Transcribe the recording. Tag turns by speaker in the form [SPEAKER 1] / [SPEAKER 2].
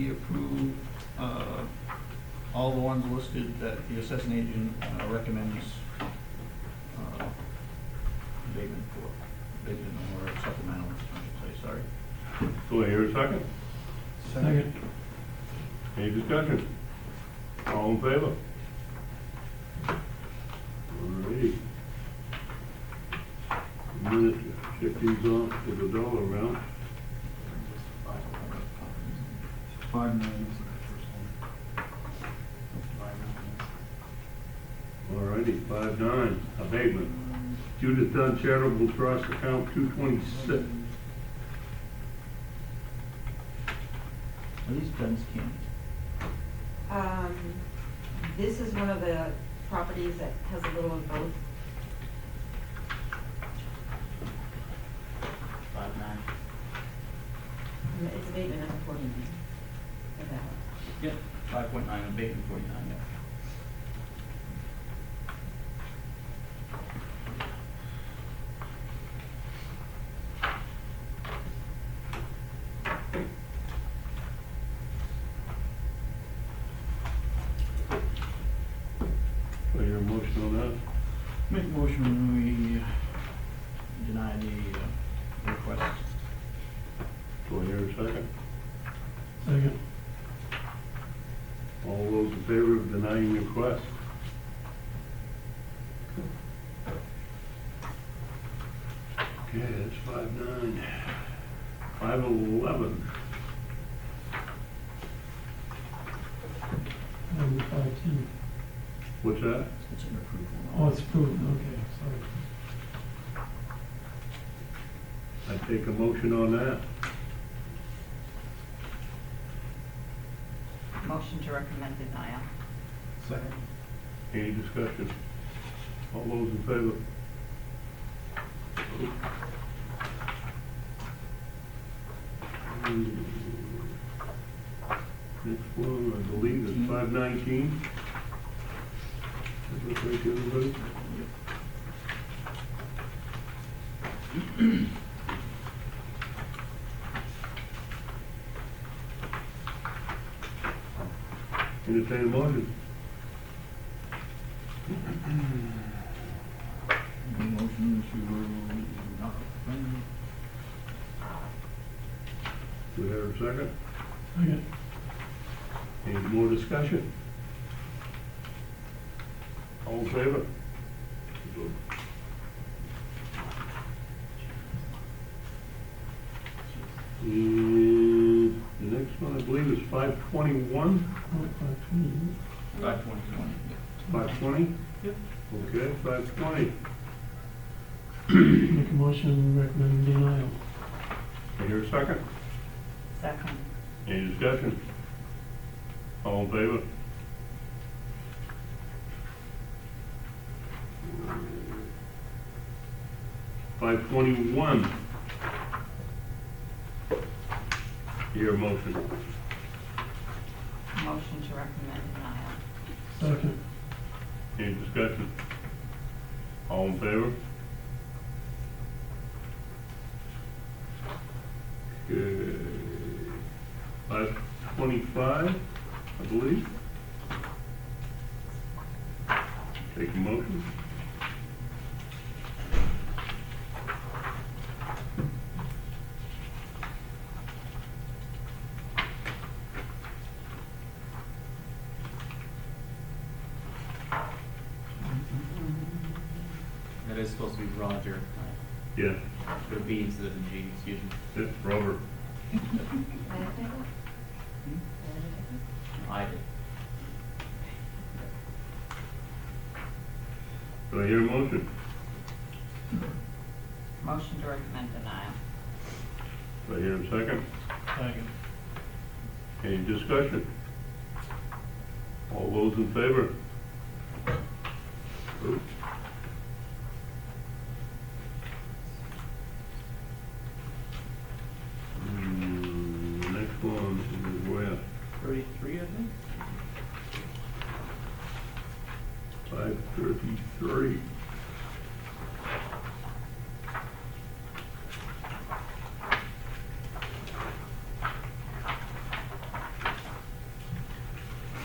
[SPEAKER 1] we approve uh, all the ones listed that the assessing agent uh, recommends uh, abatement for, abatement or supplemental, I should say, sorry.
[SPEAKER 2] Do I hear a second?
[SPEAKER 3] Second.
[SPEAKER 2] Any discussion? All in favor? Alrighty. Minute, check these off with a dollar amount.
[SPEAKER 3] Five million is the first one. Five million.
[SPEAKER 2] Alrighty, five nine, abatement. Judith Dunn Charitable Trust Account two twenty-six.
[SPEAKER 1] Are these Dunn's Canyon?
[SPEAKER 4] Um, this is one of the properties that has a little of both.
[SPEAKER 5] Five nine.
[SPEAKER 4] Um, It's abatement of forty-nine. of that one.
[SPEAKER 5] Yep, five point nine, abatement forty-nine, yep.
[SPEAKER 2] Do I hear a motion on that?
[SPEAKER 1] Make a motion, we deny the uh, request.
[SPEAKER 2] Do I hear a second?
[SPEAKER 3] Second.
[SPEAKER 2] All those in favor of denying the request? Okay, that's five nine. Five eleven.
[SPEAKER 6] Number five ten.
[SPEAKER 2] What's that?
[SPEAKER 1] It's an approval.
[SPEAKER 6] Oh, it's approved, okay, sorry.
[SPEAKER 2] I take a motion on that.
[SPEAKER 7] Motion to recommend denial.
[SPEAKER 3] Second.
[SPEAKER 2] Any discussion? All those in favor? Next one, I believe, is five nineteen. Does that look right to everybody? Entertain a motion.
[SPEAKER 1] Make a motion to not recommend.
[SPEAKER 2] Do we have a second?
[SPEAKER 6] Second.
[SPEAKER 2] Any more discussion? All in favor? And the next one, I believe, is five twenty-one,
[SPEAKER 6] Oh, five twenty.
[SPEAKER 1] Five twenty twenty.
[SPEAKER 2] five twenty?
[SPEAKER 6] Yep.
[SPEAKER 2] Okay, five twenty.
[SPEAKER 6] Make a motion, recommend denial.
[SPEAKER 2] I hear a second.
[SPEAKER 7] Second.
[SPEAKER 2] Any discussion? All in favor? Five twenty-one. Your motion.
[SPEAKER 7] Motion to recommend denial.
[SPEAKER 6] Second.
[SPEAKER 2] Any discussion? All in favor? Okay. Five twenty-five, I believe. Take a motion.
[SPEAKER 5] That is supposed to be Roger, uh,
[SPEAKER 2] Yeah,
[SPEAKER 5] put a B instead of a G, excuse me.
[SPEAKER 2] yeah, Robert.
[SPEAKER 4] Am I up there?
[SPEAKER 7] Hmm?
[SPEAKER 4] Am I
[SPEAKER 5] I
[SPEAKER 4] up there?
[SPEAKER 5] did.
[SPEAKER 2] Do I hear a motion?
[SPEAKER 7] Motion to recommend denial.
[SPEAKER 2] Do I hear a second?
[SPEAKER 1] Second.
[SPEAKER 2] Any discussion? All those in favor? Oops. Hmm, the Next one is where?
[SPEAKER 5] Thirty-three, I think?
[SPEAKER 2] Five thirty-three.